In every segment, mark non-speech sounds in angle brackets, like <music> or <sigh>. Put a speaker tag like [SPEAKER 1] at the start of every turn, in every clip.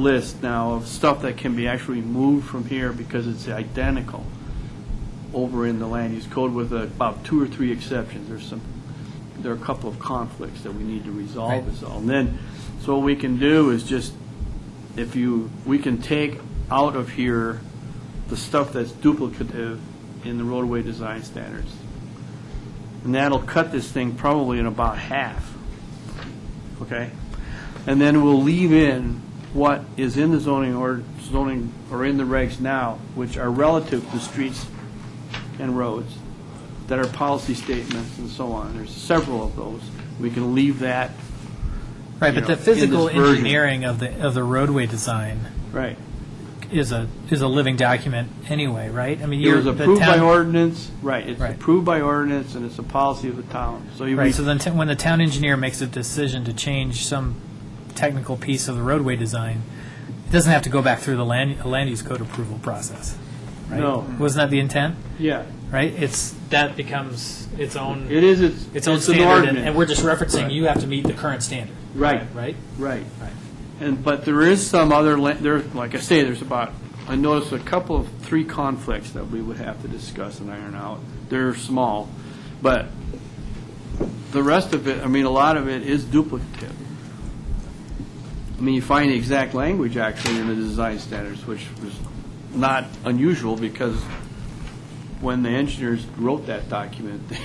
[SPEAKER 1] list now of stuff that can be actually moved from here because it's identical over in the land use code with uh, about two or three exceptions. There's some, there are a couple of conflicts that we need to resolve is all. And then, so what we can do is just, if you, we can take out of here the stuff that's duplicative in the roadway design standards. And that'll cut this thing probably in about half, okay? And then we'll leave in what is in the zoning or zoning, or in the regs now, which are relative to streets and roads that are policy statements and so on. There's several of those. We can leave that,
[SPEAKER 2] Right,
[SPEAKER 1] you
[SPEAKER 2] but
[SPEAKER 1] know,
[SPEAKER 2] the
[SPEAKER 1] in this
[SPEAKER 2] physical
[SPEAKER 1] version.
[SPEAKER 2] engineering of the, of the roadway design
[SPEAKER 1] right.
[SPEAKER 2] is a, is a living document anyway, right? I mean,
[SPEAKER 1] It
[SPEAKER 2] you're.
[SPEAKER 1] was
[SPEAKER 2] the
[SPEAKER 1] approved by
[SPEAKER 2] town-
[SPEAKER 1] ordinance, right, it's
[SPEAKER 2] Right.
[SPEAKER 1] approved by ordinance, and it's a policy of the town. So you,
[SPEAKER 2] Right, so then, t- when the town engineer makes a decision to change some technical piece of the roadway design, it doesn't have to go back through the land, land use code approval process, right?
[SPEAKER 1] No.
[SPEAKER 2] Wasn't that the intent,
[SPEAKER 1] yeah,
[SPEAKER 2] right? It's, that becomes its own,
[SPEAKER 1] it is, it's,
[SPEAKER 2] its own
[SPEAKER 1] it's an
[SPEAKER 2] standard, and-
[SPEAKER 1] ordinance.
[SPEAKER 2] and we're just referencing, you have to meet the current standard.
[SPEAKER 1] Right.
[SPEAKER 2] Right?
[SPEAKER 1] Right.
[SPEAKER 2] Right.
[SPEAKER 1] And, but there is some other, la- there, like I say, there's about, I noticed a couple of, three conflicts that we would have to discuss and iron out. They're small, but the rest of it, I mean, a lot of it is duplicative. I mean, you find the exact language actually in the design standards, which was not unusual because when the engineers wrote that document, <laughs> they,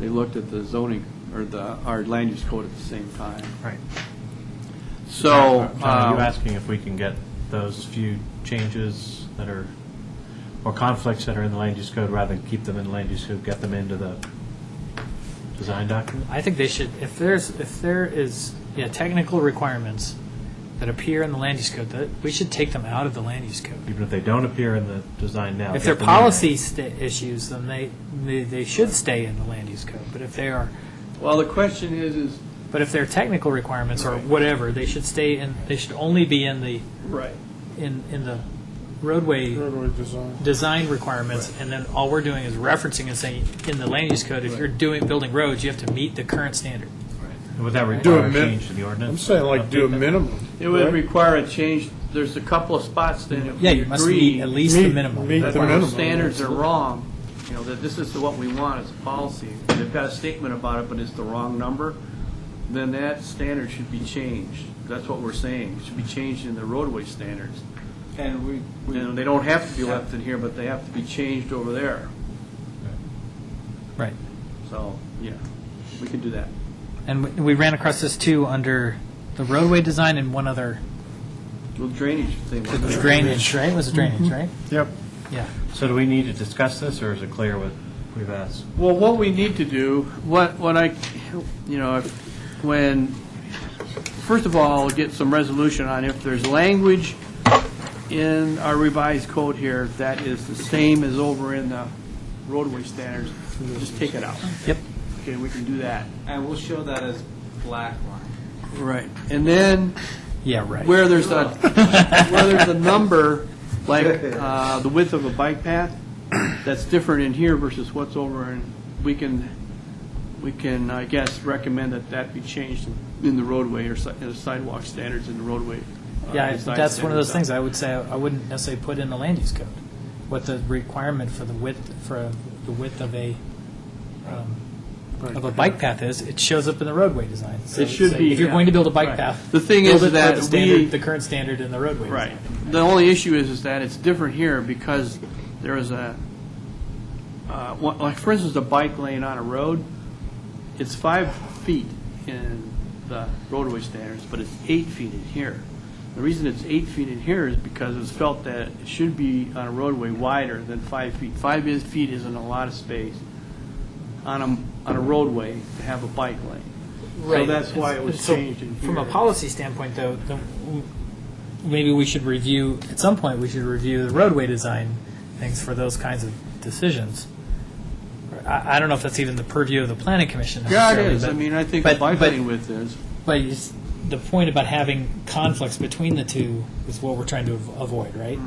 [SPEAKER 1] they looked at the zoning, or the, our land use code at the same time.
[SPEAKER 2] Right.
[SPEAKER 1] So,
[SPEAKER 3] John, are you
[SPEAKER 1] um,
[SPEAKER 3] asking if we can get those few changes that are, or conflicts that are in the land use code, rather than keep them in the land use code, get them into the design document?
[SPEAKER 2] I think they should, if there's, if there is, yeah, technical requirements that appear in the land use code, that, we should take them out of the land use code.
[SPEAKER 3] Even if they don't appear in the design now?
[SPEAKER 2] If
[SPEAKER 3] get
[SPEAKER 2] they're
[SPEAKER 3] them in there.
[SPEAKER 2] policy sta- issues, then they, they, they should stay in the land use code, but if they are,
[SPEAKER 1] well, the question is, is,
[SPEAKER 2] but if they're technical requirements or
[SPEAKER 1] Right.
[SPEAKER 2] whatever, they should stay in, they should only be in the,
[SPEAKER 1] right,
[SPEAKER 2] in, in the roadway
[SPEAKER 4] Roadway design.
[SPEAKER 2] design requirements, and then all we're doing is referencing and saying, in the land use code, if you're doing, building roads, you have to meet the current standard.
[SPEAKER 3] Would that
[SPEAKER 4] Do a
[SPEAKER 3] require a
[SPEAKER 4] min-
[SPEAKER 3] change to the ordinance?
[SPEAKER 4] I'm saying like do a
[SPEAKER 3] Update that?
[SPEAKER 4] minimum.
[SPEAKER 1] it would
[SPEAKER 4] right?
[SPEAKER 1] require a change, there's a couple of spots then if
[SPEAKER 2] Yeah,
[SPEAKER 1] we
[SPEAKER 2] you must meet
[SPEAKER 1] agree
[SPEAKER 2] at least the
[SPEAKER 4] Meet-
[SPEAKER 2] minimum.
[SPEAKER 4] meet
[SPEAKER 1] that
[SPEAKER 4] the
[SPEAKER 1] our
[SPEAKER 4] minimum.
[SPEAKER 1] standards are wrong, you know, that this is what we want as a policy, and they've got a statement about it, but it's the wrong number, then that standard should be changed. That's what we're saying, it should be changed in the roadway standards.
[SPEAKER 5] And we, we-
[SPEAKER 1] And they don't have to be left in here, but they have to be changed over there,
[SPEAKER 2] Right.
[SPEAKER 1] so, yeah, we can do that.
[SPEAKER 2] And we- we ran across this too under the roadway design and one other
[SPEAKER 1] Little drainage thing.
[SPEAKER 2] drainage, right? Was it drainage, right?
[SPEAKER 4] Yep.
[SPEAKER 2] Yeah.
[SPEAKER 3] So do we need to discuss this, or is it clear what we've asked?
[SPEAKER 1] Well, what we need to do, what, what I, you know, if- when, first of all, get some resolution on if there's language in our revised code here that is the same as over in the roadway standards, just take it out.
[SPEAKER 2] Yep.
[SPEAKER 1] Okay, we can do that.
[SPEAKER 5] and we'll show that as black line.
[SPEAKER 1] Right. And then
[SPEAKER 2] Yeah, right.
[SPEAKER 1] where there's
[SPEAKER 2] <laughs>
[SPEAKER 1] a, where there's a number, like uh, the width of a bike path, that's different in here versus what's over, and we can, we can, I guess, recommend that that be changed in the roadway or si- in the sidewalk standards in the roadway. uh,
[SPEAKER 2] Yeah, I-
[SPEAKER 1] design
[SPEAKER 2] that's one of those
[SPEAKER 1] standards.
[SPEAKER 2] things I would say, I wouldn't necessarily put in the land use code, what the requirement for the width, for the width of a, um, of a bike path is, it shows up in the roadway design. So
[SPEAKER 1] It should
[SPEAKER 2] say,
[SPEAKER 1] be,
[SPEAKER 2] If you're
[SPEAKER 1] yeah.
[SPEAKER 2] going to build a bike
[SPEAKER 1] Right.
[SPEAKER 2] path.
[SPEAKER 1] The thing
[SPEAKER 2] build
[SPEAKER 1] is
[SPEAKER 2] it per
[SPEAKER 1] that
[SPEAKER 2] the standard-
[SPEAKER 1] we-
[SPEAKER 2] The current standard in the roadway.
[SPEAKER 1] Right.
[SPEAKER 2] design.
[SPEAKER 1] The only issue is, is that it's different here because there is a, uh, one- like, for instance, a bike lane on a road, it's five feet in the roadway standards, but it's eight feet in here. The reason it's eight feet in here is because it's felt that it should be on a roadway wider than five feet. Five is- feet isn't a lot of space on a, on a roadway to have a bike lane. So
[SPEAKER 2] Right.
[SPEAKER 1] that's why it
[SPEAKER 2] And
[SPEAKER 1] was
[SPEAKER 2] so
[SPEAKER 1] changed in here.
[SPEAKER 2] From a policy standpoint, though, the- w- maybe we should review, at some point, we should review the roadway design things for those kinds of decisions. I, I don't know if that's even the purview of the planning commission.
[SPEAKER 1] Yeah, it
[SPEAKER 2] necessarily,
[SPEAKER 1] is. I
[SPEAKER 2] but-
[SPEAKER 1] mean, I think the
[SPEAKER 2] but-
[SPEAKER 1] bike
[SPEAKER 2] but-
[SPEAKER 1] lane width is.
[SPEAKER 2] But it's- the point about having conflicts between the two is what we're trying to av- avoid, right?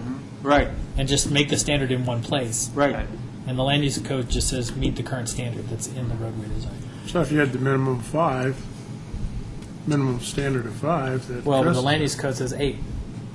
[SPEAKER 1] Right,
[SPEAKER 2] And just make the standard in one place.
[SPEAKER 1] Mm-hmm. right.
[SPEAKER 2] And the land use code just says, meet the current standard that's in the roadway design.
[SPEAKER 4] So if you had the minimum five, minimum standard of five, that.
[SPEAKER 2] Well, the
[SPEAKER 4] addressed-
[SPEAKER 2] land use code says eight.